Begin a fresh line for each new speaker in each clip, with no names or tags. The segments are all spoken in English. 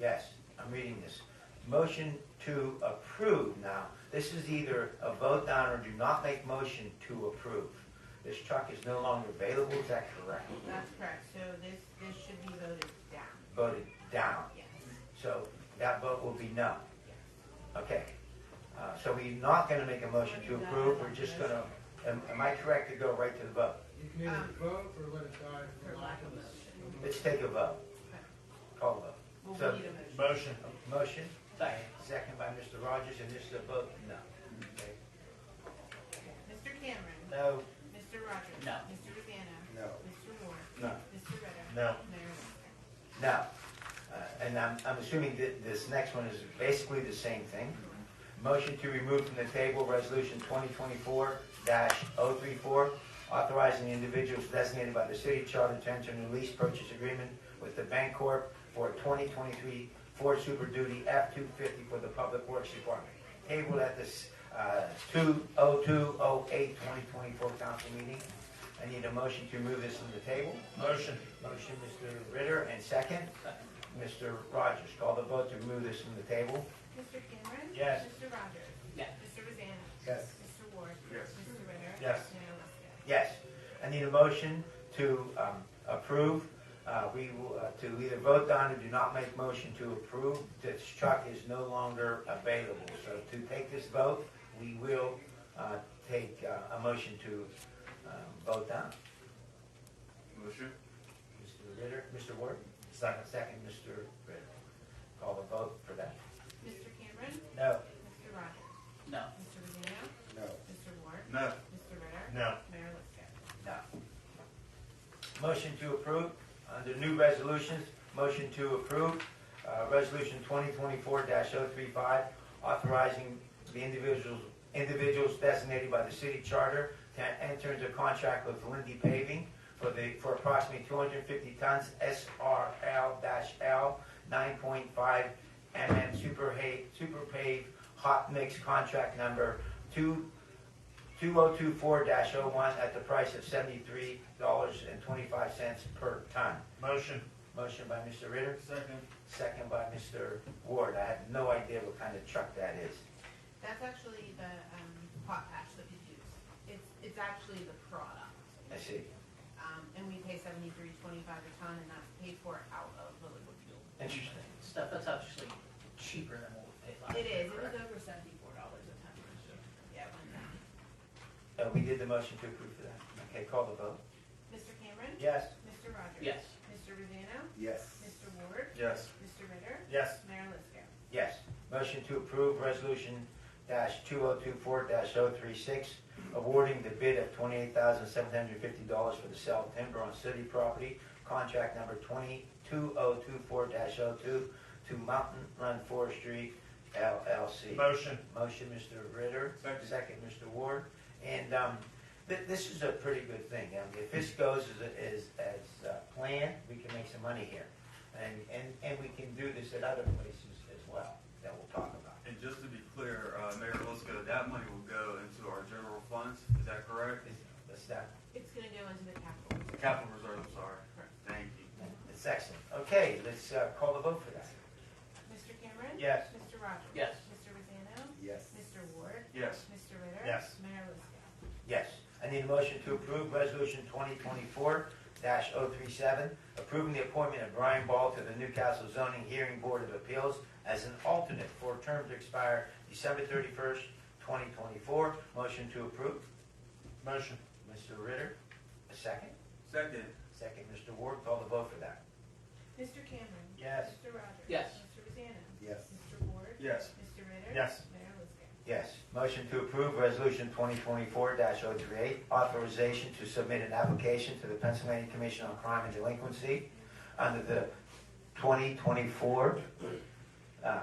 Yes, I'm reading this. Motion to approve now. This is either a vote down or do not make motion to approve. This truck is no longer available, is that correct?
That's correct, so this, this should be voted down,
Voted down,
yes.
so that vote will be no. Okay, Uh, so we're not gonna make a motion to approve, we're just gonna, am am I correct to go right to the vote?
You can either vote or let it die Um, for lack of a
Let's take a vote. Call vote.
We'll
So-
need a motion.
Motion.
Motion? Second. by Mr. Rogers, and this is a vote no. Okay.
Mr. Cameron.
No.
Mr. Rogers.
No.
Mr. Rosanna.
No.
Mr. Moore.
No.
Mr. Ritter.
No.
Mayor Longstreet.
Now, uh, and I'm, I'm assuming that this next one is basically the same thing. Motion to remove from the table Resolution 2024-034, authorizing individuals designated by the city charter to enter into lease purchase agreement with the Bank Corp for 2023 Ford Super Duty F-250 for the Public Works Department. Tabled at this uh, 20208 2024 council meeting. I need a motion to remove this from the table.
Motion.
Motion, Mr. Ritter, and second, Mr. Rogers. Call the vote to remove this from the table.
Mr. Cameron.
Yes.
Mr. Rogers.
Yes.
Mr. Rosanna.
Yes.
Mr. Ward. Yes. Mr. Ritter.
Yes.
Mayor Longstreet.
Yes. I need a motion to um, approve. Uh, We will, uh, to either vote down or do not make motion to approve. This truck is no longer available. So to take this vote, we will uh, take uh, a motion to um, vote down.
Motion?
Mr. Ritter, Mr. Ward?
Second.
Second, Mr. Ritter. Call the vote for that.
Mr. Cameron.
No.
Mr. Rogers.
No.
Mr. Rosanna.
No.
Mr. Ward.
No.
Mr. Ritter.
No.
Mayor Longstreet.
No. Motion to approve, under new resolutions, motion to approve, uh, Resolution 2024-035, authorizing the individuals, individuals designated by the city charter to enter into contract with Lindy Paving for the, for approximately 250 tons SRL-L 9.5 mm super hay, super pave hot mix contract number 2 2024-01 at the price of $73.25 per ton.
Motion.
Motion by Mr. Ritter,
Second.
second by Mr. Ward. I have no idea what kind of truck that is.
That's actually the, um, potash that we use. It's, it's actually the product.
I see.
Um, and we pay seventy-three twenty-five a ton and that's paid for out of the liquid fuel.
Interesting.
Stuff that's actually cheaper than what we paid last
It
year,
is, it was
correct?
over seventy-four dollars a ton last year. Yeah, one time.
Uh, We did the motion to approve for that. Okay, call the vote.
Mr. Cameron?
Yes.
Mr. Rogers?
Yes.
Mr. Rosano?
Yes.
Mr. Ward?
Yes.
Mr. Ritter?
Yes.
Mayor Liscan?
Yes. Motion to approve resolution dash two oh two four dash oh three six, awarding the bid of twenty-eight thousand seven hundred fifty dollars for the sale of timber on city property, contract number twenty-two oh two four dash oh two to Mountain Run Forestry LLC.
Motion.
Motion, Mr. Ritter.
Second.
Mr. Ward. And um, thi- this is a pretty good thing. I mean, If this goes as, as, as uh, planned, we can make some money here. And, and, and we can do this at other places as well that we'll talk about.
And just to be clear, uh, Mayor Lisco, that money will go into our general funds, is that correct?
This- That's that,
It's gonna go into the capital reserve.
Capital reserve, I'm sorry. Thank you.
that's excellent. Okay, let's uh, call the vote for that.
Mr. Cameron?
Yes.
Mr. Rogers?
Yes.
Mr. Rosano?
Yes.
Mr. Ward?
Yes.
Mr. Ritter?
Yes.
Mayor Liscan?
Yes. I need a motion to approve Resolution 2024-037, approving the appointment of Brian Ball to the Newcastle Zoning Hearing Board of Appeals as an alternate for a term to expire December 31st, 2024. Motion to approve.
Motion.
Mr. Ritter, a second.
Second?
Second, Mr. Ward, call the vote for that.
Mr. Cameron?
Yes.
Mr. Rogers?
Yes.
Mr. Rosano?
Yes.
Mr. Ward?
Yes.
Mr. Ritter?
Yes.
Mayor Liscan?
Yes. Motion to approve Resolution 2024-038, authorization to submit an application to the Pennsylvania Commission on Crime and Delinquency under the 2024, um,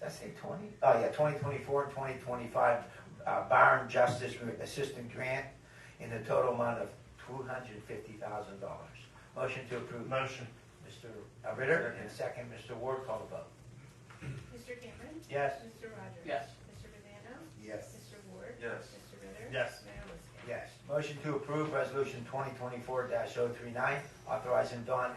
did I say 20? Oh, yeah, 2024 and 2025 uh, Byron Justice Assistant Grant in the total amount of $250,000. Motion to approve.
Motion.
Mr. Ritter, and second, Mr. Ward, call the vote.
Mr. Cameron?
Yes.
Mr. Rogers?
Yes.
Mr. Rosano?
Yes.
Mr. Ward?
Yes.
Mr. Ritter?
Yes.
Mayor Liscan?
Yes. Motion to approve Resolution 2024-039, authorizing Don